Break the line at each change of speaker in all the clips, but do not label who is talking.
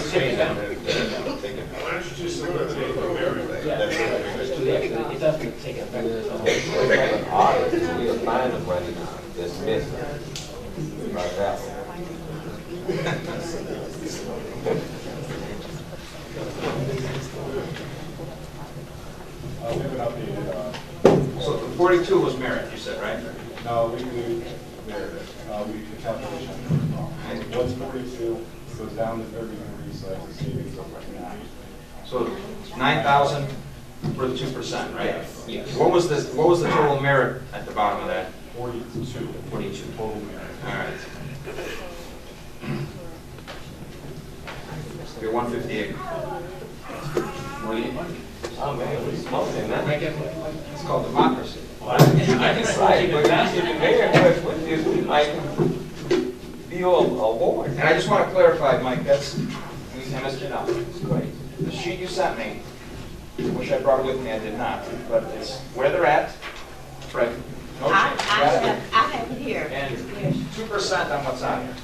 Take down.
Why don't you just go to the everything?
Yeah, it's too late. it doesn't take effect until.
We're making an audit, we're finding money now, dismiss it. Right that way.
Uh, we haven't updated, uh,
So the 42 was merit, you said, right?
no, we do, there, uh, we do calculation. What's forty-two goes down to thirty-three, so that's a savings of like nine.
So 9,000 for the 2%, right?
Yes.
What was the, what was the total merit at the bottom of that?
Forty-two.
42. All
Total merit.
right. You're 158. What do you,
Oh, man, we smoking
Can I
now.
get
it's called democracy.
I can say, but you should be very much with this, we might be a award.
And I just want to clarify, Mike, that's, and Mr. Knopf, it's great. The sheet you sent me, which I brought with me, I did not, but it's where they're at, right?
I,
No
I
change.
have, I have here.
And two percent on what's on here.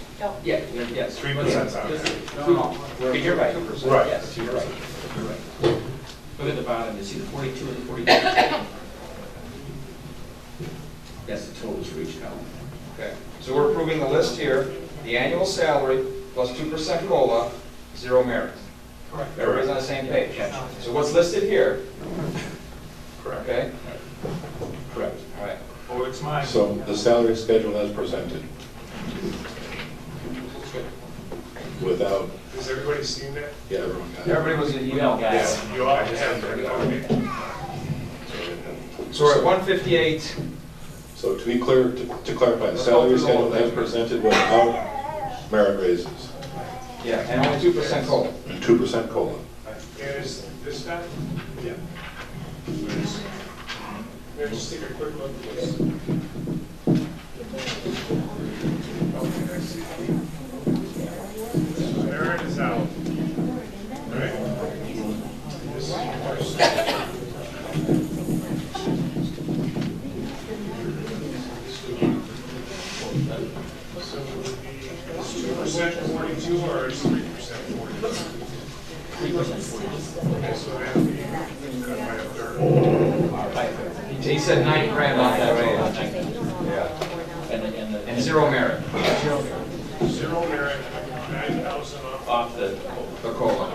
Yeah.
Yes, three
percent's on
Yes,
there.
No, no, you're right. Two percent.
Right.
Yes, you're right. You're right.
Look at the bottom, you see the forty-two and the forty-two. That's the totals for each column.
Okay, so we're approving the list here, the annual salary plus two percent COLA, zero merit. Correct. Everybody's on the same page. So what's listed here?
Correct.
Okay,
Correct.
all right.
Oh, it's mine.
So the salary schedule as presented, without,
Has everybody seen that?
yeah, everyone got it.
Everybody was in email, guys.
Yeah, You all have that, okay.
So we're at one fifty-eight,
So to be clear, to to clarify, the salary schedule as presented without merit raises,
yeah, and only two percent COLA.
two percent COLA.
And is this not? Yeah. Maybe just take a quick look at this. Okay, I see. There it is out. All right. This is yours. So is two percent forty-two or is three percent forty-two? Okay, so that'd be cut by a third.
He said nine grand on that, right?
And, the- and the.
And zero merit
Zero merit, nine thousand off.
Off the,
for COLA.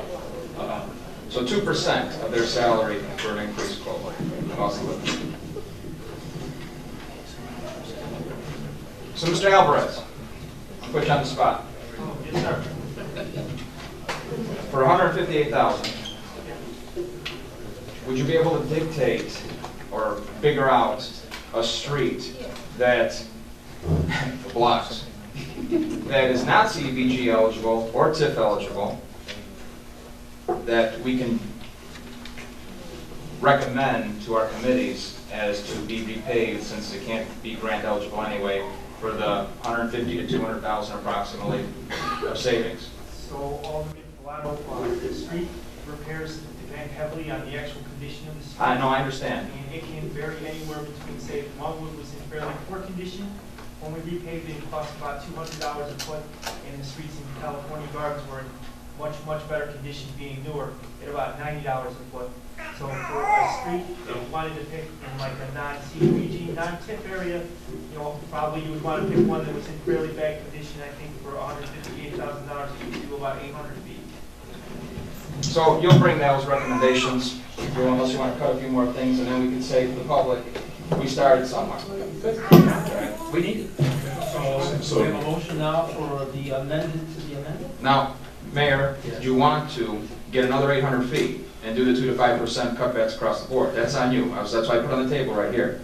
uh,
So two percent of their salary for an increased COLA, cost of living. So Mr. Alvarez, I'll put you on the spot. For hundred and fifty-eight thousand, would you be able to dictate or figure out a street that blocks, that is not CDBG eligible or TIF eligible, that we can recommend to our committees as to be repaid, since it can't be grant eligible anyway, for the 150 to 200,000 approximately of savings.
So Alderman Bellato, uh, the street repairs depend heavily on the actual condition of the street.
I know, I understand.
And it can vary anywhere between, say, if Longwood was in fairly poor condition, when we repaved it, it cost about two hundred dollars a foot, and the streets in California Gardens were in much, much better condition being newer, at about ninety dollars a foot. So for a street that we wanted to pick in like a non-CDBG, non-tip area, you know, probably you would want to pick one that was in fairly bad condition, I think for hundred fifty-eight thousand dollars, you could do about eight hundred feet.
So you'll bring those recommendations, if you want, unless you want to cut a few more things, and then we can say to the public, we started somewhere.
We need it. We have a
So,
motion now for the amended to the amendment?
Now, Mayor, you want to get another 800 feet and do the 2 to 5% cutbacks across the board. That's on you. I was- That's why I put it on the table right here.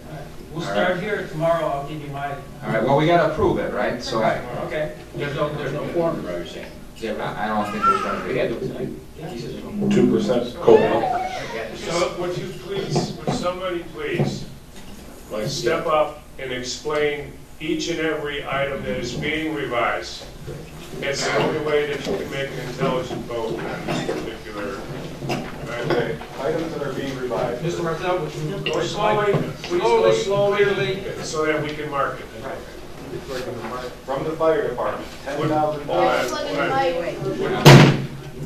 We'll
All
start here, tomorrow I'll give you my,
All right, well, we got to approve it, right? So I,
okay?
there's no, there's no form, you're saying.
I don't think there's going to
We
be.
had to tonight. He says there's no more.
two percent COLA,
So would you please, would somebody please
like,
step up and explain each and every item that is being revised? It's the only way that you can make an intelligent vote on this particular.
Okay, items that are being revised.
Mr. Martel, would you?
Go slowly, please go slowly, so that we can mark it.
From the fire department, ten thousand
Hold
dollars.
on, hold on.
Wait,
Would